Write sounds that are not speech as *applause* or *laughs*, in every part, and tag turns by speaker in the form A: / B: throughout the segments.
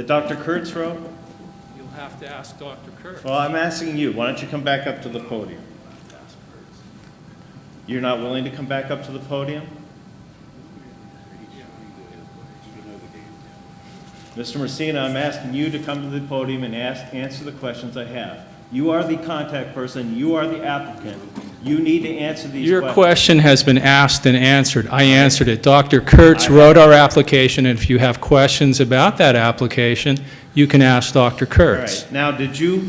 A: The Dr. Kurtz Road?
B: You'll have to ask Dr. Kurtz.
A: Well, I'm asking you, why don't you come back up to the podium? You're not willing to come back up to the podium? Mr. Messina, I'm asking you to come to the podium and ask, answer the questions I have. You are the contact person, you are the applicant, you need to answer these questions.
B: Your question has been asked and answered. I answered it. Dr. Kurtz wrote our application, and if you have questions about that application, you can ask Dr.
A: All
B: Kurtz.
A: right, now, did you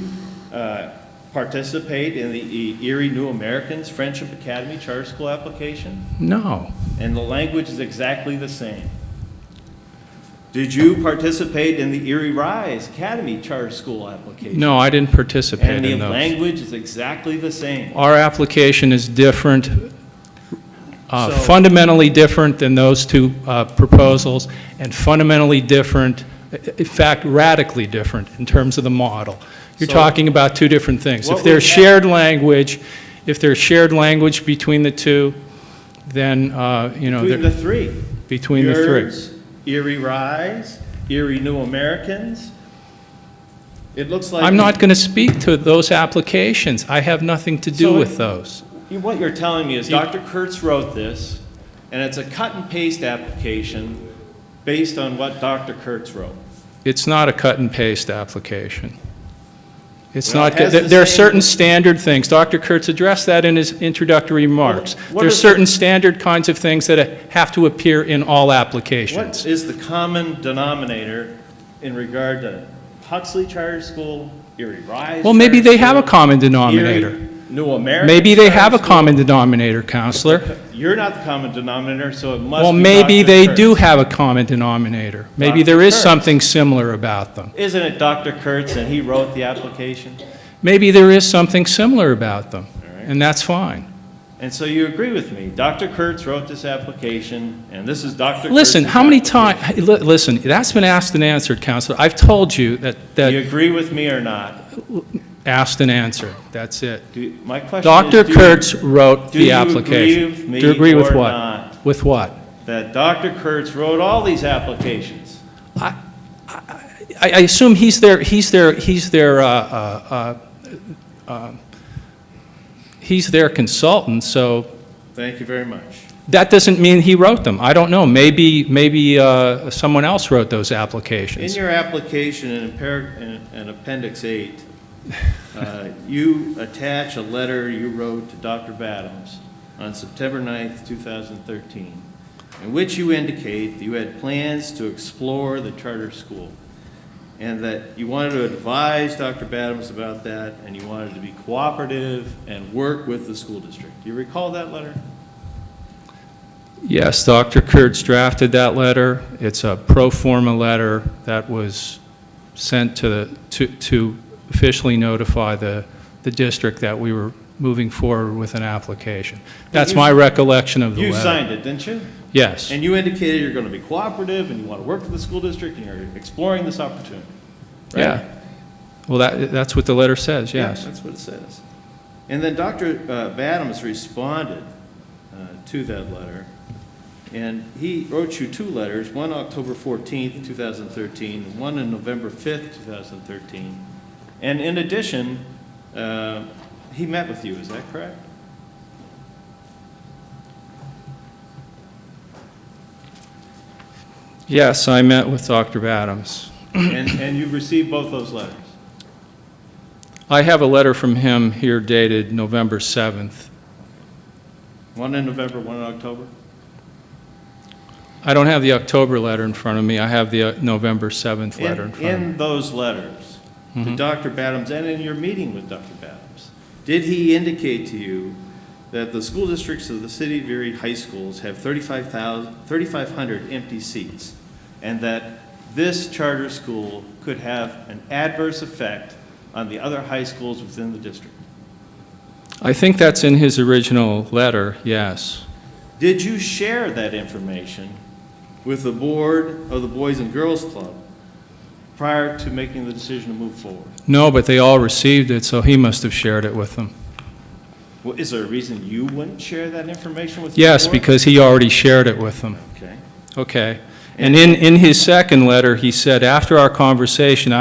A: uh, participate in the E, Erie New Americans Friendship Academy Charter School application?
B: No.
A: and the language is exactly the same. Did you participate in the Erie Rise Academy Charter School application?
B: No, I didn't
A: And
B: participate
A: the
B: in those.
A: language is exactly the same.
B: Our application is different, uh,
A: So-
B: fundamentally different than those two uh, proposals, and fundamentally different, i- in fact radically different in terms of the model. You're
A: So-
B: talking about two different things.
A: What
B: If
A: we
B: there's
A: have-
B: shared language, if there's shared language between the two, then, uh, you know,
A: Between
B: they're-
A: the three.
B: between the three.
A: Yours, Erie Rise, Erie New Americans. It looks like.
B: I'm not going to speak to those applications. I have nothing to do
A: So-
B: with those.
A: You- What you're telling me is
B: You-
A: Dr. Kurtz wrote this, and it's a cut and paste application based on what Dr. Kurtz wrote.
B: It's not a cut and paste application. It's
A: Well, it
B: not,
A: has
B: there
A: the
B: there are
A: same-
B: certain standard things. Dr. Kurtz addressed that in his introductory remarks.
A: what
B: There are
A: is the-
B: certain standard kinds of things that have to appear in all
A: What
B: applications.
A: is the common denominator in regard to Huxley Charter School, Erie Rise?
B: Well, maybe
A: Charter
B: they have a
A: School,
B: common
A: Erie
B: denominator.
A: New American.
B: Maybe they
A: Charter
B: have a
A: School?
B: common denominator, Counselor.
A: You're not the common denominator, so it must be.
B: Well, maybe
A: Dr.
B: they
A: Kurtz.
B: do have a common denominator. Maybe
A: Dr.
B: there is
A: Kurtz.
B: something similar about them.
A: Isn't it Dr. Kurtz and he wrote the application?
B: Maybe there is something similar about them,
A: right.
B: and that's fine.
A: And so you agree with me. Dr. Kurtz wrote this application, and this is Dr. Kurtz's.
B: Listen, how many
A: application.
B: times? listen, that's been asked and answered, Counselor. I've told you that,
A: Do you
B: that
A: agree with me or not?
B: asked and answered, that's it.
A: Do- My question is.
B: Dr.
A: do you-
B: Kurtz wrote
A: do
B: the
A: you
B: application.
A: agree with
B: Do you agree
A: me
B: with
A: or
B: what?
A: not?
B: With what?
A: That Dr. Kurtz wrote all these applications.
B: I, I assume he's their, he's their, he's their, uh, uh, uh, uh, he's their consultant, so
A: Thank you very much.
B: that doesn't mean he wrote them. I don't know, maybe, maybe uh, someone else wrote those
A: In
B: applications.
A: your application in appar- in- in Appendix 8, uh,
B: *laughs*
A: you attach a letter you wrote to Dr. Battams on September 9th, 2013, in which you indicate that you had plans to explore the charter school, and that you wanted to advise Dr. Battams about that, and you wanted to be cooperative and work with the school district. Do you recall that letter?
B: Yes, Dr. Kurtz drafted that letter. It's a pro forma letter that was sent to, the to to officially notify the, the district that we were moving forward with an application. That's
A: you-
B: my recollection of the
A: You
B: letter.
A: signed it, didn't you?
B: Yes,
A: And you indicated you're going to be cooperative and you want to work with the school district and you're exploring this opportunity. right?
B: yeah. Well, that, that's what the letter says,
A: Yeah,
B: yes.
A: That's what it says. And then Dr. uh, Badams responded uh, to that letter, and he wrote you two letters, one October 14th, 2013, and one on November 5th, 2013. And in addition, uh, he met with you, is that correct?
B: Yes, I met with Dr. Adams.
A: And, and you received both those letters?
B: I have a letter from him here dated November 7th.
A: One in November, one in October?
B: I don't have the October letter in front of me. I have the uh, November 7th
A: In-
B: letter in front of Mm-hmm. me.
A: In those letters to Dr. Badams and in your meeting with Dr. Badams, did he indicate to you that the school districts of the city of Erie high schools have 35,000 3,500 empty seats? And that this charter school could have an adverse effect on the other high schools within the district?
B: I think that's in his original letter, yes.
A: Did you share that information with the board of the Boys and Girls Club prior to making the decision to move forward?
B: No, but they all received it, so he must have shared it with them.
A: Well, is there a reason you wouldn't share that information with the
B: Yes,
A: board?
B: because he already shared it with them.
A: Okay.
B: Okay. And in, in his second letter, he said, after our conversation, I